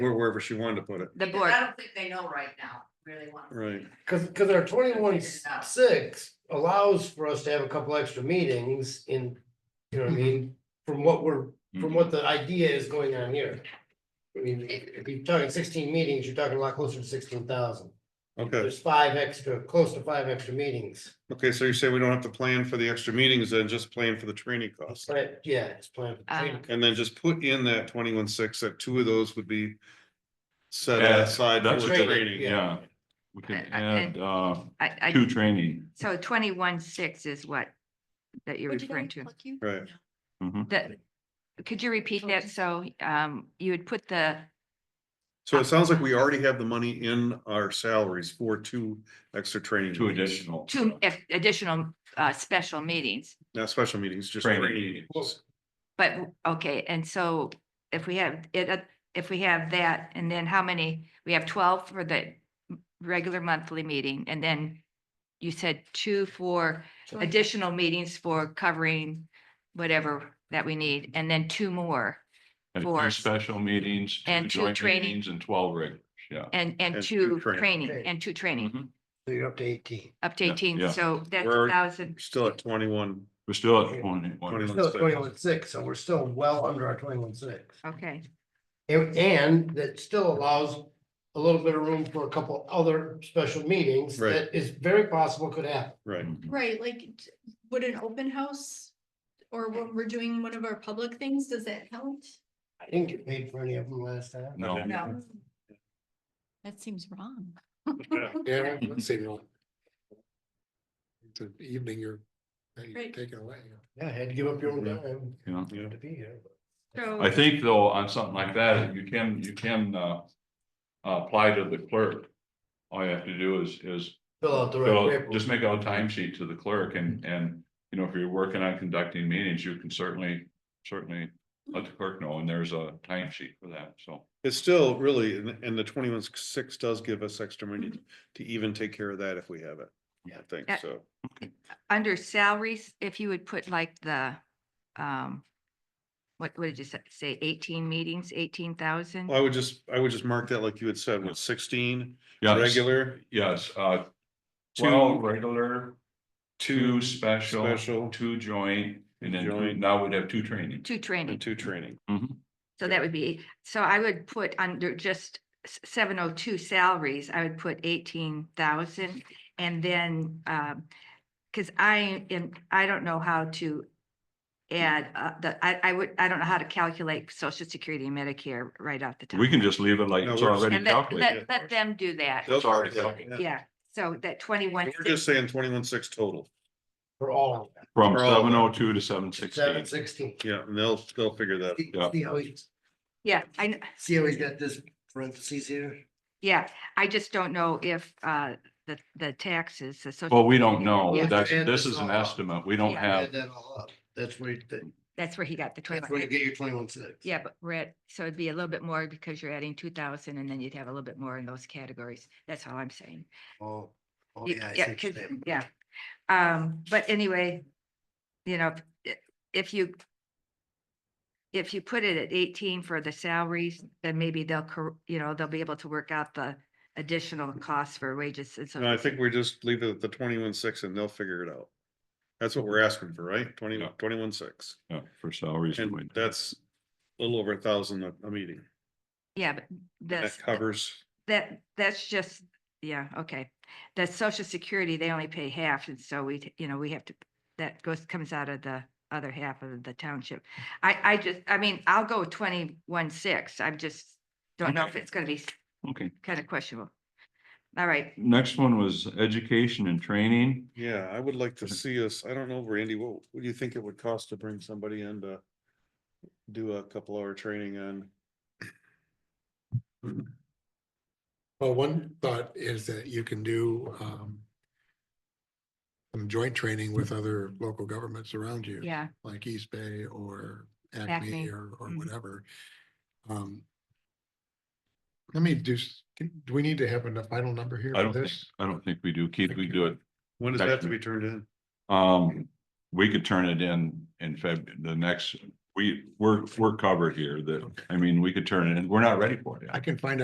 or wherever she wanted to put it. the Because board. I don't think they know right now, really want. to Right. Cause, cause our twenty-one six allows for us to have a couple extra meetings in, you know what I mean? From what we're, from what the idea is going on here. I mean, if you're talking sixteen meetings, you're talking a lot closer to sixteen thousand. Okay, There's five extra, close to five extra meetings, okay, so you say we don't have to plan for the extra meetings, then just plan for the training costs. but yeah, it's planned. for Uh, training. And then just put in that twenty-one six, that two of those would be set Yeah, aside for that's what they- training. Yeah, we can I- I- add, uh, I, I, two training. so twenty-one six is what, that you're Would you referring guys to. like you? Right. Mhm. That, could you repeat that? So, um, you would put the, So it sounds like we already have the money in our salaries for two extra training. Two meetings. additional. two if- additional, uh, special meetings. Not special meetings, just Training. training. meetings. But, okay, and so if we have it, uh, if we have that, and then how many, we have twelve for the m- regular monthly meeting, and then you said two for additional meetings for covering whatever that we need, and then two more, And for- two special meetings. and two joint training. meetings And twelve regulars, yeah. and, and And two two training. training, Okay. and two training, Mhm. So you're up to eighteen. up to Yeah, eighteen, yeah. so that's a We're- thousand. Still at twenty-one. We're still at twenty-one. 21. Still twenty-one six, so we're still well under our twenty-one six. Okay, And, and that still allows a little bit of room for a couple other special meetings Right. that is very possible could happen. Right. Mhm. Right, like, d- would an open house or what we're doing, one of our public things, does that count? I didn't get paid for any of them last time. No. No. That seems wrong. Yeah, Mm-hmm. let's say no. It's an evening you're, that you're Right. taking away. you know. Yeah, I had to give up your own Mhm. time Yeah. Yeah. to be here. but- I so, think though, on something like that, you can, you can, uh, apply to the clerk. All you have to do is, is Fill out the fill- right paper. just make out a time sheet to the clerk and, and, you know, if you're working on conducting meetings, you can certainly, certainly let the clerk know, and there's a time sheet for that, so. It's still really, and, and the twenty-one six does give us extra money to even take care of that if we have it. I think Yeah. so. under salaries, if you would put like the, um, what, what did you sa- say, eighteen meetings, eighteen thousand? Well, I would just, I would just mark that like you had said, with sixteen Yes, regular, Yes, uh, two twelve regular, two two special, special, two joint, and then two- Joint. now we'd have two training. Two and training, two training. so that would be, so I would put under just seven oh two salaries, I would put eighteen thousand. And then, um, cause I am, I don't know how to add, uh, the, I, I would, I don't know how to calculate social security and Medicare right off the top. We can just leave it like No, it's we're just- already And let, calculated. it, let, let them do that, Those already are- yeah, calculated. yeah. yeah, so that twenty-one. We're just saying twenty-one six total. For all of them. From For all of them. seven oh two to seven sixteen. Seven sixteen. Yeah, and they'll, they'll figure that. See Yeah. see how he, Yeah, I, kn- see how he's got this parentheses here? yeah, I just don't know if, uh, the, the taxes, the social. Well, we don't know. Yeah. That's, And this it's is an all up. estimate. We don't Yeah. Add have, that all up. That's where, you- That's where he got the that's twenty-one. where you get your twenty-one six. Yeah, but we're at, so it'd be a little bit more because you're adding two thousand and then you'd have a little bit more in those categories. That's all I'm saying. Oh, oh, You- yeah. I see Yeah, what you're 'cause- saying. yeah. Um, but anyway, you know, i- if you if you put it at eighteen for the salaries, then maybe they'll, cor- you know, they'll be able to work out the additional costs for wages and so. No, I think we just leave it at the twenty-one six and they'll figure it out. That's what we're asking for, right? Twenty, Yeah. twenty-one six. yeah, uh, for salaries. and And wages. that's a little over a thousand a, a meeting. Yeah, but That that's, covers, that, that's just, yeah, okay. That social security, they only pay half, and so we, t- you know, we have to, that goes, comes out of the other half of the township. I, I just, I mean, I'll go twenty-one six, I'm just, don't know if Okay. it's gonna be Okay, kind of questionable. All right, next one was education and training. yeah, I would like to Mm-hmm. see us, I don't know, Randy, what, what do you think it would cost to bring somebody in to do a couple hour training on? Well, one thought is that you can do um. Some joint training with other local governments around you. yeah, Like East Bay or Acme. Acme or or Mhm. whatever. Um. Let me do, s- can- do we need to have a final number here I for don't think- this? I don't think we do. Keith, we do it. When does that have to be turned in? Um, we could turn it in in Feb, the next we, we're, we're covered here that, I mean, we could turn it in. We're not ready for it. yet. I can find